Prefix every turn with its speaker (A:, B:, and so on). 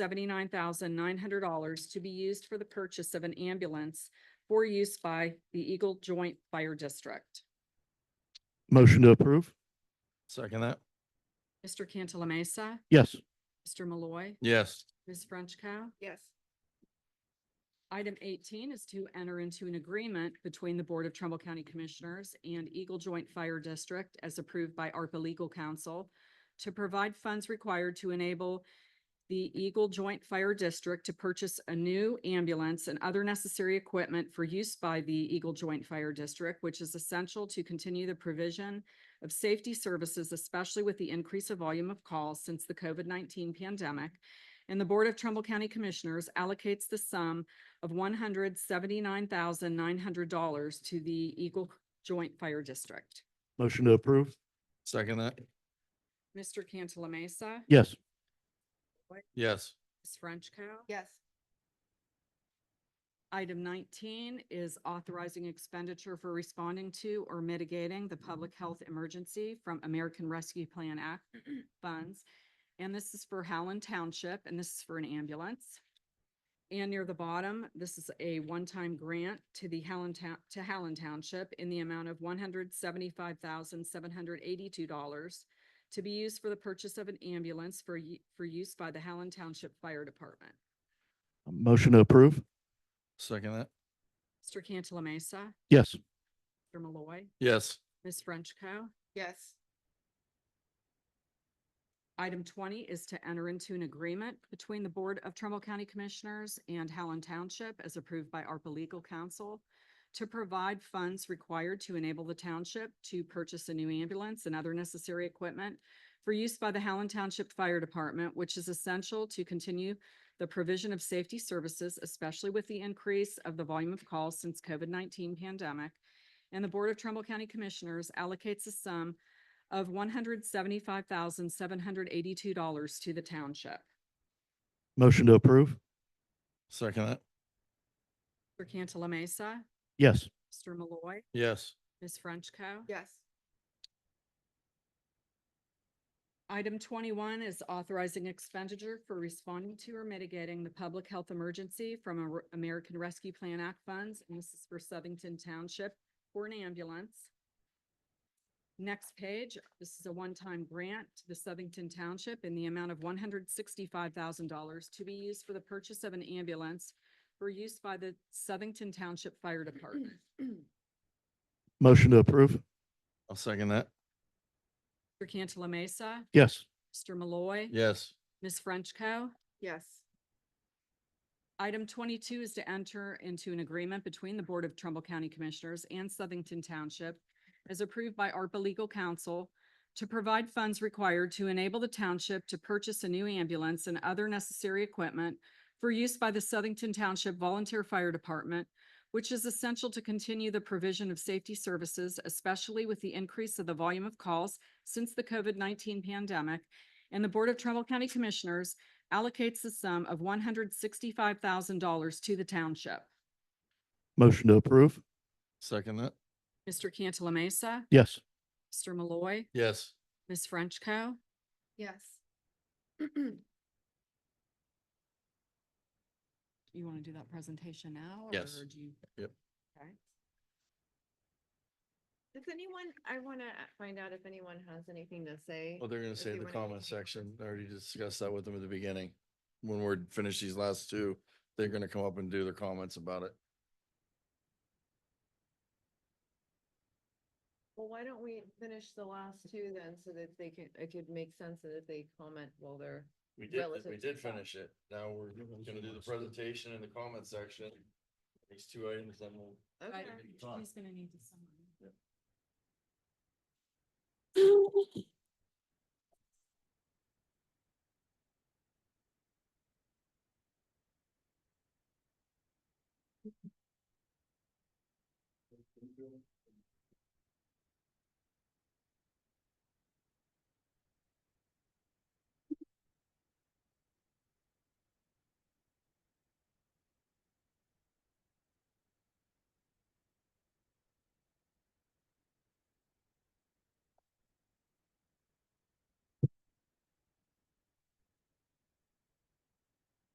A: seventy-nine thousand nine hundred dollars to be used for the purchase of an ambulance for use by the Eagle Joint Fire District.
B: Motion to approve?
C: Second that.
A: Mr. Cantala Mesa,
B: Yes.
A: Mr. Malloy,
C: Yes.
A: Ms. Frenchco.
D: yes,
A: Item eighteen is to enter into an agreement between the Board of Trumbull County Commissioners and Eagle Joint Fire District as approved by ARPA Legal Counsel to provide funds required to enable the Eagle Joint Fire District to purchase a new ambulance and other necessary equipment for use by the Eagle Joint Fire District, which is essential to continue the provision of safety services, especially with the increase of volume of calls since the COVID nineteen pandemic. And the Board of Trumbull County Commissioners allocates the sum of one hundred seventy-nine thousand nine hundred dollars to the Eagle Joint Fire District.
B: Motion to approve?
C: Second that.
A: Mr. Cantala Mesa,
B: Yes.
C: Yes.
A: Ms. Frenchco.
D: yes,
A: Item nineteen is authorizing expenditure for responding to or mitigating the public health emergency from American Rescue Plan Act funds. And this is for Howland Township, and this is for an ambulance. And near the bottom, this is a one-time grant to the Howland Town, to Howland Township in the amount of one hundred seventy-five thousand, seven hundred eighty-two dollars to be used for the purchase of an ambulance for, y- for use by the Howland Township Fire Department.
B: Motion to approve?
C: Second that.
A: Mr. Cantala Mesa,
B: Yes.
A: Mr. Malloy.
C: Yes.
A: Ms. Frenchco.
D: yes,
A: Item twenty is to enter into an agreement between the Board of Trumbull County Commissioners and Howland Township as approved by ARPA Legal Counsel to provide funds required to enable the township to purchase a new ambulance and other necessary equipment for use by the Howland Township Fire Department, which is essential to continue the provision of safety services, especially with the increase of the volume of calls since COVID nineteen pandemic. And the Board of Trumbull County Commissioners allocates a sum of one hundred seventy-five thousand, seven hundred eighty-two dollars to the township.
B: Motion to approve?
C: Second that.
A: Mr. Cantala Mesa,
B: Yes.
A: Mr. Malloy,
C: Yes.
A: Ms. Frenchco.
D: yes,
A: Item twenty-one is authorizing expenditure for responding to or mitigating the public health emergency from Amer- American Rescue Plan Act funds. And this is for Southington Township for an ambulance. Next page, this is a one-time grant to the Southington Township in the amount of one hundred sixty-five thousand dollars to be used for the purchase of an ambulance for use by the Southington Township Fire Department.
B: Motion to approve?
C: I'll second that.
A: Mr. Cantala Mesa,
B: Yes.
A: Mr. Malloy.
C: Yes.
A: Ms. Frenchco.
D: yes,
A: Item twenty-two is to enter into an agreement between the Board of Trumbull County Commissioners and Southington Township as approved by ARPA Legal Counsel to provide funds required to enable the township to purchase a new ambulance and other necessary equipment for use by the Southington Township Volunteer Fire Department, which is essential to continue the provision of safety services, especially with the increase of the volume of calls since the COVID-nineteen pandemic. And the Board of Trumbull County Commissioners allocates the sum of one hundred sixty-five thousand dollars to the township.
B: Motion to approve?
C: Second that.
A: Mr. Cantala Mesa,
B: Yes.
A: Mr. Malloy,
C: Yes.
A: Ms. Frenchco.
D: yes,
A: You want to do that presentation now?
C: Yes.
A: or do you-
C: Yep.
A: Okay.
D: Does anyone, I want to find out if anyone has anything to say.
C: Well, they're gonna say
D: you
C: in the
D: wanna go
C: comment
D: to the-
C: section. I already discussed that with them at the beginning. When we're finished these last two, they're gonna come up and do their comments about it.
D: Well, why don't we finish the last two then, so that they can, it could make sense that if they comment while they're,
C: We did,
D: Relative
C: we
D: to
C: did
D: the top.
C: finish it. Now we're gonna do the presentation in the comment section. These two items, then we'll.
D: okay,
C: Right. Maybe talk.
A: He's gonna need to summarize.